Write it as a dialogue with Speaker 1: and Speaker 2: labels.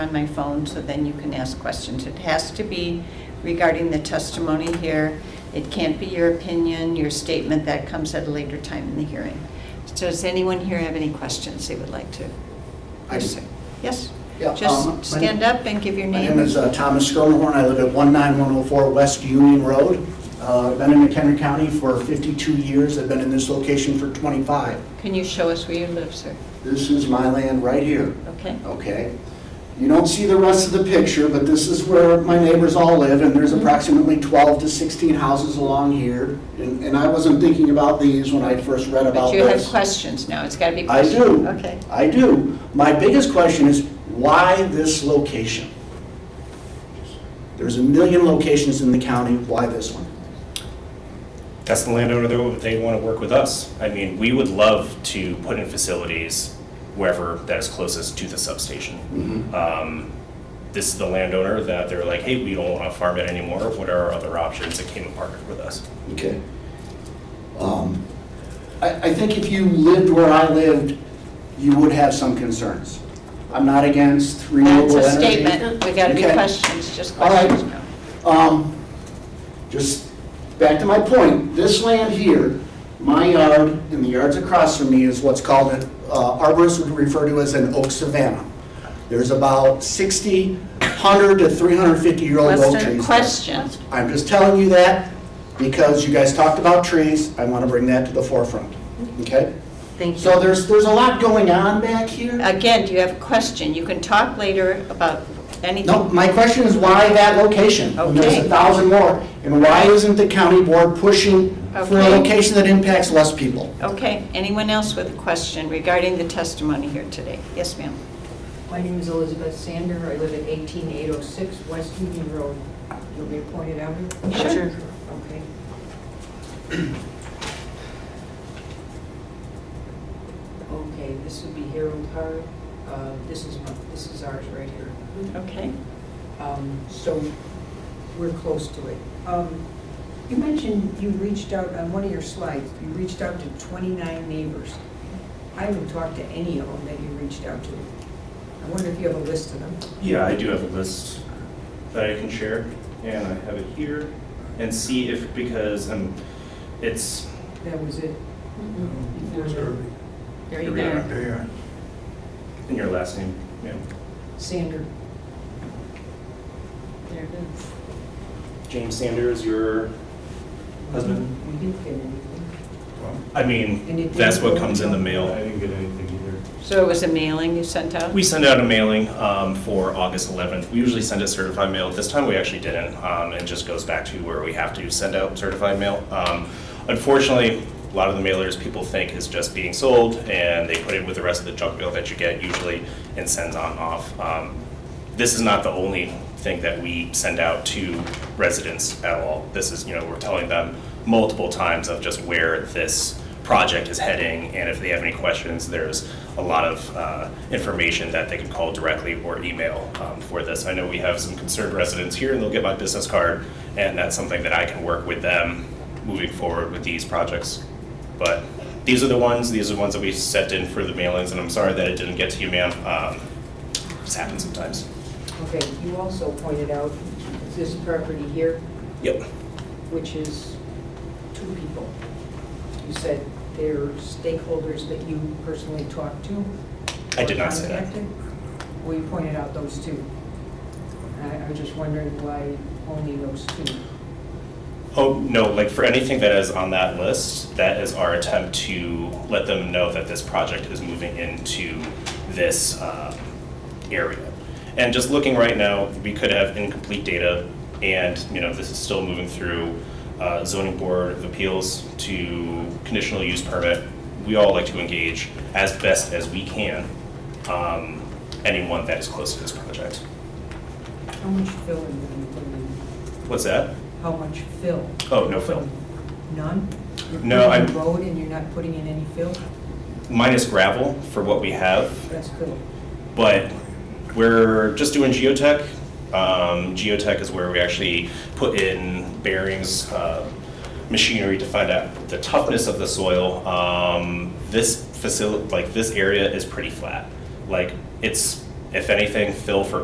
Speaker 1: on my phone, so then you can ask questions. It has to be regarding the testimony here. It can't be your opinion, your statement, that comes at a later time in the hearing. Does anyone here have any questions they would like to?
Speaker 2: I do.
Speaker 1: Yes?
Speaker 2: Yeah, um, my-
Speaker 1: Just stand up and give your
Speaker 2: My
Speaker 1: name.
Speaker 2: name is uh, Thomas Skonehorn. I live at 19104 West Union Road. Uh, I've Been in McHenry County for 52 years. I've been in this location for 25.
Speaker 1: Can you show us where you live, sir?
Speaker 2: This is my land right here,
Speaker 1: Okay?
Speaker 2: okay? You don't see the rest of the picture, but this is where my neighbors all live, and there's approximately 12 to 16 houses along here. And and I wasn't thinking about these when I first read about
Speaker 1: But
Speaker 2: this.
Speaker 1: you have questions now, it's got to be
Speaker 2: I
Speaker 1: questions.
Speaker 2: do.
Speaker 1: Okay.
Speaker 2: I do. My biggest question is, why this location? There's a million locations in the county, why this one?
Speaker 3: That's the landowner that they want to work with us. I mean, we would love to put in facilities wherever that is closest to the substation. Um, This is the landowner that they're like, hey, we don't want to farm it anymore. What are our other options? It came and partnered with us.
Speaker 2: Okay. Um, I, I think if you lived where I lived, you would have some concerns. I'm not against
Speaker 1: That's
Speaker 2: renewable
Speaker 1: a
Speaker 2: energy.
Speaker 1: statement, we got to be
Speaker 2: Okay.
Speaker 1: questions, just
Speaker 2: All right.
Speaker 1: questions now.
Speaker 2: Um, just back to my point, this land here, my yard and the yards across from me is what's called, an- uh, arborists would refer to as an oak savanna. There's about 60, 100 to 350-year-old oak
Speaker 1: Question,
Speaker 2: trees.
Speaker 1: questions.
Speaker 2: I'm just telling you that because you guys talked about trees, I want to bring that to the forefront, okay?
Speaker 1: Thank
Speaker 2: So
Speaker 1: you.
Speaker 2: there's, there's a lot going on back here.
Speaker 1: Again, do you have a question? You can talk later about anything.
Speaker 2: No, my question is why that location? And There's
Speaker 1: Okay.
Speaker 2: a thousand more. And why isn't the county board pushing for a
Speaker 1: Okay.
Speaker 2: location that impacts less people?
Speaker 1: Okay, anyone else with a question regarding the testimony here today? Yes, ma'am.
Speaker 4: My name is Elizabeth Sander. I live at 18806 West Union Road. You'll be appointed out here?
Speaker 1: Sure.
Speaker 4: Okay. Okay, this would be Harold Hart. Uh, This is, my- this is ours right here.
Speaker 1: Okay.
Speaker 4: Um, So we're close to it. Um, You mentioned you reached out, on one of your slides, you reached out to 29 neighbors. I haven't talked to any of them that you reached out to. I wonder if you have a list of them?
Speaker 3: Yeah, I do have a list that I can share, and I have it here, and see if, because um, it's,
Speaker 4: That was it.
Speaker 1: Mm-hmm. There you
Speaker 3: Here we
Speaker 1: go.
Speaker 3: are. in your last name, ma'am.
Speaker 4: Sander.
Speaker 1: There it is.
Speaker 3: James Sanders, your husband?
Speaker 4: We didn't get anything.
Speaker 3: I
Speaker 4: And it
Speaker 3: mean,
Speaker 4: didn't
Speaker 3: that's what
Speaker 4: go
Speaker 3: comes in the
Speaker 4: out?
Speaker 3: mail.
Speaker 5: I didn't get anything either.
Speaker 1: So it was a mailing you sent out?
Speaker 3: We send out a mailing um, for August 11th. We usually send a certified mail. This time we actually didn't. um, It just goes back to where we have to send out certified mail. Um, Unfortunately, a lot of the mailers people think is just being sold and they put it with the rest of the junk mail that you get usually and sends on off. Um, This is not the only thing that we send out to residents at all. This is, you know, we're telling them multiple times of just where this project is heading, and if they have any questions, there's a lot of uh, information that they can call directly or email um, for this. I know we have some concerned residents here, and they'll get my business card, and that's something that I can work with them moving forward with these projects. But these are the ones, these are the ones that we sent in for the mailings, and I'm sorry that it didn't get to you, ma'am. Um, This happens sometimes.
Speaker 4: Okay, you also pointed out this property here,
Speaker 3: Yep.
Speaker 4: which is two people. You said they're stakeholders that you personally talked to?
Speaker 3: I did not say that.
Speaker 4: Contacted? Well, you pointed out those two. I I was just wondering why only those two?
Speaker 3: Oh, no, like for anything that is on that list, that is our attempt to let them know that this project is moving into this um, area. And just looking right now, we could have incomplete data and, you know, this is still moving through uh, zoning board of appeals to conditional use permit. We all like to engage as best as we can, um, anyone that is close to this project.
Speaker 4: How much fill in did you put in?
Speaker 3: What's that?
Speaker 4: How much fill?
Speaker 3: Oh, no fill.
Speaker 4: None?
Speaker 3: No,
Speaker 4: You're
Speaker 3: I'm-
Speaker 4: putting road and you're not putting in any fill?
Speaker 3: Minus gravel for what we have,
Speaker 4: That's fill.
Speaker 3: but we're just doing geotech. Um, geotech is where we actually put in bearings, uh, machinery to find out the toughness of the soil. Um, this facility, like this area, is pretty flat. Like it's, if anything, fill for